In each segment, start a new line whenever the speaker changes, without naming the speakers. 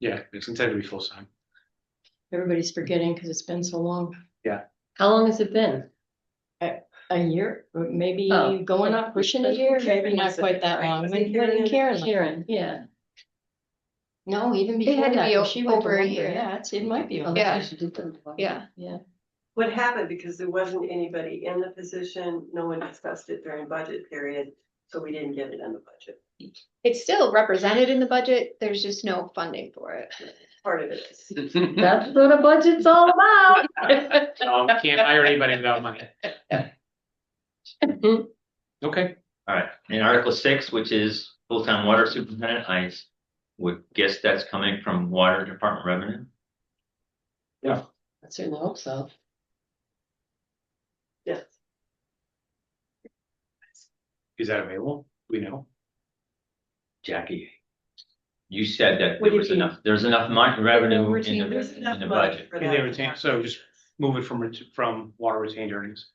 Yeah, it's intended to be full time.
Everybody's forgetting because it's been so long,
How long has it been?
a year, maybe
Oh.
going up, pushing a year, maybe not quite that long. When when Karen, left.
Karen, yeah.
no, even
It
before
had to
that,
be
'cause
o-
she went to
over a
Lumber,
year.
yeah, it's, it might be.
Oh,
over.
Yeah.
that's what she did then.
Yeah.
Yeah,
What happened, because there wasn't anybody in the position, no one discussed it during budget period, so we didn't get it in the budget.
It's still represented in the budget, there's just no funding for it.
Part of it is.
That's what a budget's all about.
Um, can't hire anybody without money. Okay,
All right, in Article six, which is full-time water superintendent, I s- would guess that's coming from water department revenue.
I Certainly hope so.
Yes.
is that available? Do We know.
Jackie. You said that
What
there
do
was
you mean?
enough, there's enough mon- revenue
Routine
in
business.
the, in the
Enough money
budget.
for
Is
that.
they retain, so just move it from, ret- from water retained earnings.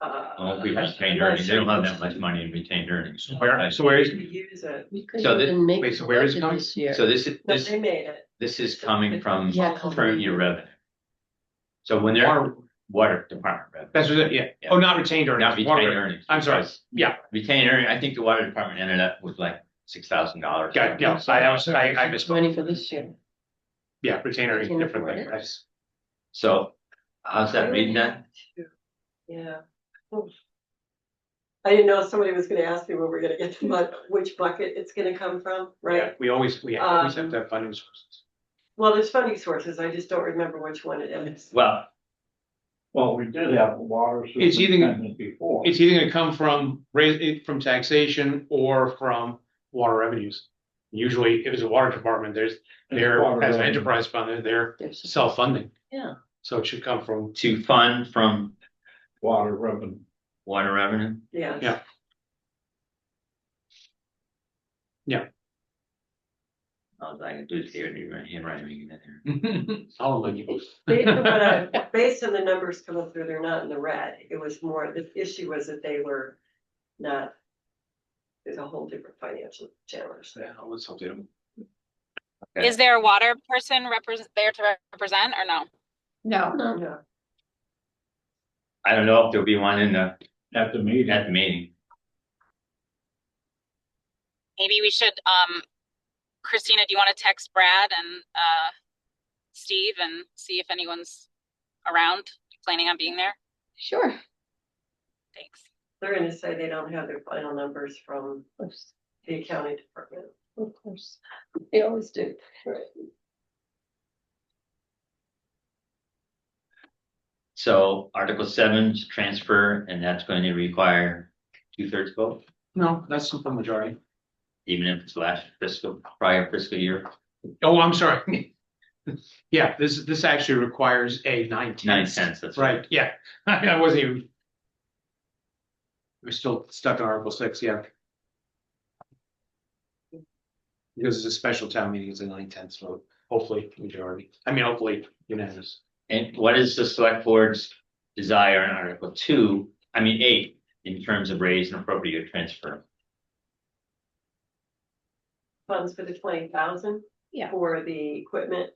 Uh,
Well, we retained earnings, they don't have that much money in retained earnings.
So where, so where is,
We use it,
We couldn't
So the-
even make
wait, so
the
where is it
budget
coming?
this year.
So this is,
no,
this,
they made it,
this is coming from
Yeah,
current year revenue. So when they're
water,
water department revenue,
that's what, it- yeah, oh, not retained
not
earnings.
retained
water-
earnings.
I'm sorry,
because
yeah,
Retained earnings, I think the water department ended up with like six thousand dollars.
got, it, yeah, so I, I was- I I misspoke,
Money for this year.
yeah, retained earnings,
Can you
different
afford
thing,
it?
that's,
So how's that reading that?
yeah. I didn't know somebody was gonna ask me where we're gonna get the mud, which bucket it's gonna come from,
yeah,
right?
we always, we always
Um,
have to have funding sources.
Well, there's funding sources, I just don't remember which one it is.
Well,
Well, we did have a water
It's either-
superintendent before.
It's either gonna come from, raise it from taxation or from water revenues. Usually, if it's a water department, there's, they're,
Water
as an
revenue.
enterprise fund, they're- they're
There's-
self-funding.
Yeah.
So it should come from,
to fund from
Water revenue.
water revenue,
Yeah.
Yeah.
I was like, dude, here, you're right, you're right, making that there.
I'll let you.
Based on what I- uh, based on the numbers coming through, they're not in the red. It was more, the issue was that they were not. There's a whole different financial challenge there.
Yeah, let's hope they don't.
Okay.
Is there a water person represent there to represent or no?
No,
No,
Yeah.
I don't know if there'll be one in the,
At the meeting.
at the meeting,
Maybe we should, um, Christina, do you want to text Brad and, uh, Steve and see if anyone's around, planning on being there?
sure.
Thanks.
They're gonna say they don't have their final numbers from
Of course,
the accounting department.
of course. They always do.
so Article seven is transfer, and that's going to require two thirds vote.
No, that's simple majority.
Even if it's last fiscal, prior fiscal year,
Oh, I'm sorry. Yeah, this, this actually requires a nine
nine
tenths.
cents, that's
Right, yeah, I wasn't even. We're still stuck on Article six, yeah. Because it's a special town meeting, it's a nine tenths vote, hopefully majority, I mean, hopefully unanimous.
And what is the select board's desire in Article two, I mean, eight, in terms of raise and appropriate transfer?
Funds for the twenty thousand.
Yeah.
For the equipment.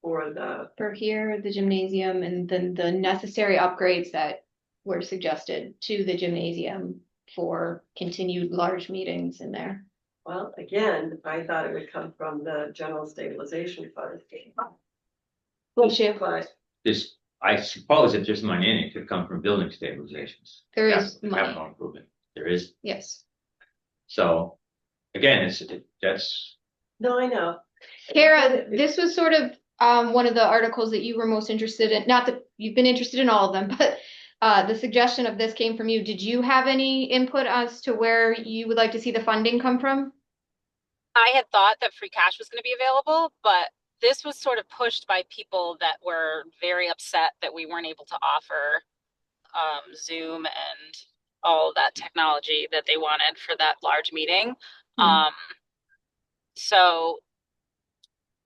For the,
For here, the gymnasium and then the necessary upgrades that were suggested to the gymnasium for continued large meetings in there.
well, again, I thought it would come from the general stabilization fund. But
This, I suppose if there's money in it, it could come from building stabilizations.
There is
Yeah,
money,
Capital improvement, there is,
yes.
so, again, it's, it- that's,
no, I know.
Kara, this was sort of um one of the articles that you were most interested in, not that you've been interested in all of them, but uh the suggestion of this came from you. Did you have any input as to where you would like to see the funding come from?
I had thought that free cash was going to be available, but this was sort of pushed by people that were very upset that we weren't able to offer um, Zoom and all that technology that they wanted for that large meeting.
Mhm.
Um, so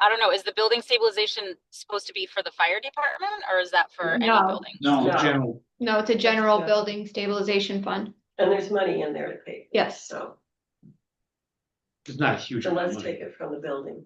I don't know. Is the building stabilization supposed to be for the fire department or is that for
No.
any building?
No.
Yeah.
General,
No, it's a general
Yeah.
building stabilization fund.
And there's money in there to pay.
Yes.
So.
it's not a huge.
So
amount of
let's
money.
take it from the building.